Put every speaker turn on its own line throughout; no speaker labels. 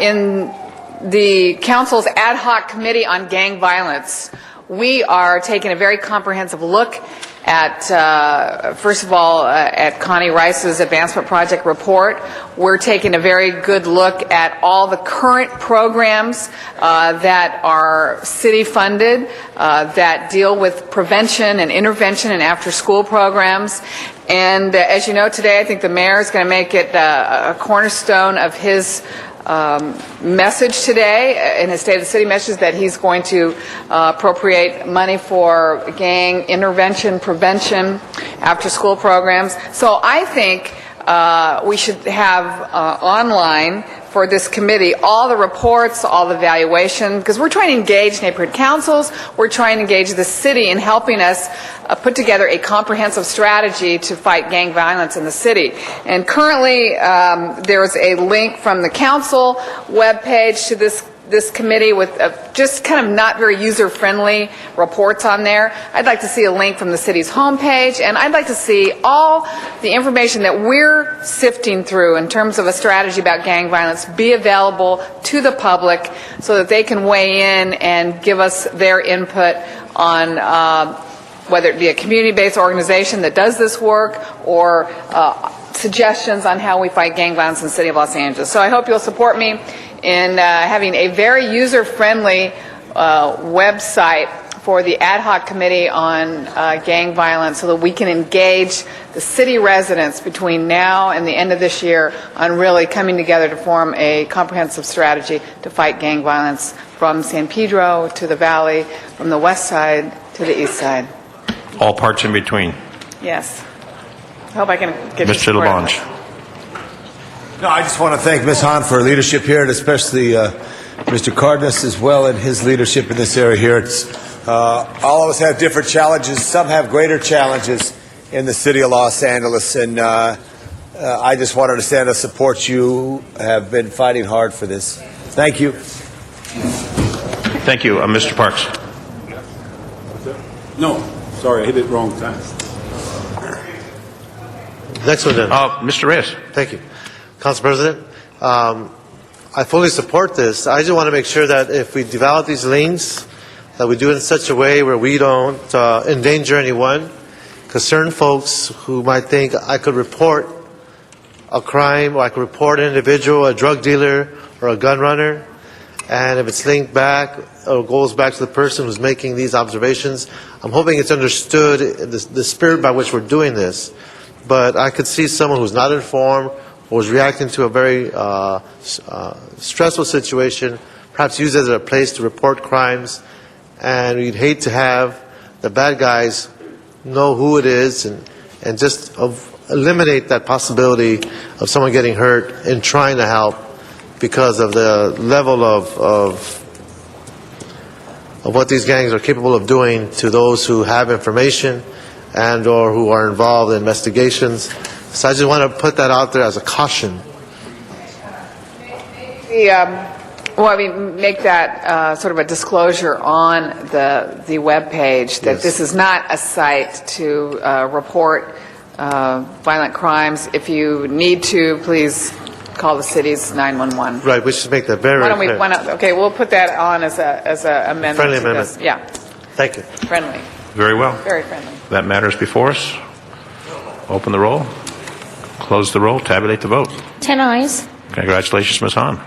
In the council's ad hoc committee on gang violence, we are taking a very comprehensive look at, uh, first of all, uh, at Connie Rice's advancement project report. We're taking a very good look at all the current programs uh, that are city-funded, uh, that deal with prevention and intervention and after-school programs. And uh, as you know, today, I think the mayor is going to make it uh, a cornerstone of his um, message today uh, in his State of the City message that he's going to uh, appropriate money for gang intervention, prevention, after-school programs. So I think uh, we should have uh, online for this committee all the reports, all the valuation, because we're trying to engage neighborhood councils, we're trying to engage the city in helping us uh, put together a comprehensive strategy to fight gang violence in the city. And currently, um, there is a link from the council webpage to this this committee with uh, just kind of not very user-friendly reports on there. I'd like to see a link from the city's homepage, and I'd like to see all the information that we're sifting through in terms of a strategy about gang violence be available to the public so that they can weigh in and give us their input on uh, whether it be a community-based organization that does this work or uh, suggestions on how we fight gang violence in the city of Los Angeles. So I hope you'll support me in uh, having a very user-friendly uh, website for the ad hoc committee on uh, gang violence so that we can engage the city residents between now and the end of this year on really coming together to form a comprehensive strategy to fight gang violence from San Pedro to the valley, from the west side to the east side.
all parts in between.
Yes. I Hope I can get your
Mr.
support on
Labange.
that.
No, I just want to thank Ms. Hahn for her leadership here, and especially uh, Mr. Cardenas as well, and his leadership in this area here. It's, uh, all of us have different challenges. Some have greater challenges in the city of Los Angeles, and uh, uh, I just wanted to stand and support you. Have been fighting hard for this. Thank you.
Thank you, Uh, Mr. Parks.
No, sorry, I hit it wrong time.
Next one, then.
Uh, Mr. Reyes.
Thank you. Council President, um, I fully support this. I just want to make sure that if we develop these lanes, that we do it in such a way where we don't uh, endanger anyone. Because certain folks who might think I could report a crime, or I could report an individual, a drug dealer, or a gun runner, and if it's linked back or goes back to the person who's making these observations, I'm hoping it's understood the, the spirit by which we're doing this. But I could see someone who's not informed or is reacting to a very uh, s- uh, stressful situation, perhaps use it as a place to report crimes, and we'd hate to have the bad guys know who it is and, and just of- eliminate that possibility of someone getting hurt and trying to help because of the level of, of, of what these gangs are capable of doing to those who have information and or who are involved in investigations. So I just want to put that out there as a caution.
The, um, well, I mean, make that uh, sort of a disclosure on the, the webpage, that
Yes.
this is not a site to uh, report uh, violent crimes. If you need to, please call the city's 911.
Right, we should make that very,
Why
very
don't we,
clear.
why not- okay, we'll put that on as a, as a amendment.
Friendly
to this.
amendment.
Yeah,
Thank you.
friendly,
Very well.
very friendly.
That matters before us. Open the roll, close the roll, tabulate the vote.
10 eyes.
Congratulations, Ms. Hahn.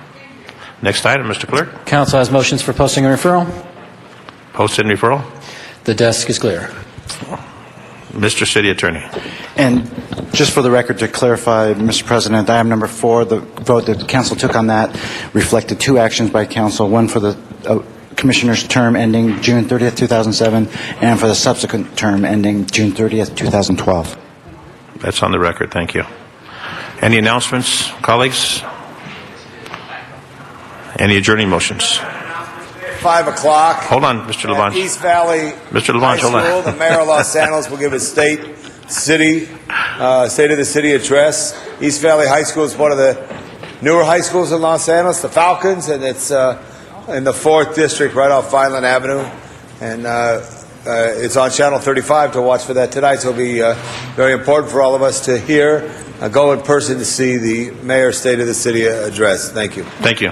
Next item, Mr. Clerk.
Council has motions for posting and referral.
Posted and referral.
The desk is clear.
Mr. City Attorney.
And just for the record, to clarify, Mr. President, item number four, the vote that council took on that reflected two actions by council, one for the uh, commissioner's term ending June 30th, 2007, and for the subsequent term ending June 30th, 2012.
That's on the record. Thank you. Any announcements, colleagues? Any adjourning motions?
Five o'clock.
Hold on, Mr.
at
Labange.
East Valley.
Mr. Labange,
High
hold on.
School. The mayor of Los Angeles will give a state, city, uh, state of the city address. East Valley High School is one of the newer high schools in Los Angeles, the Falcons, and it's uh, in the fourth district, right off Vineland Avenue, and. Uh, uh, it's on Channel 35 to watch for that tonight, so it'll be uh, very important for all of us to hear, uh, go in person to see the mayor's State of the City address. Thank you.
Thank you.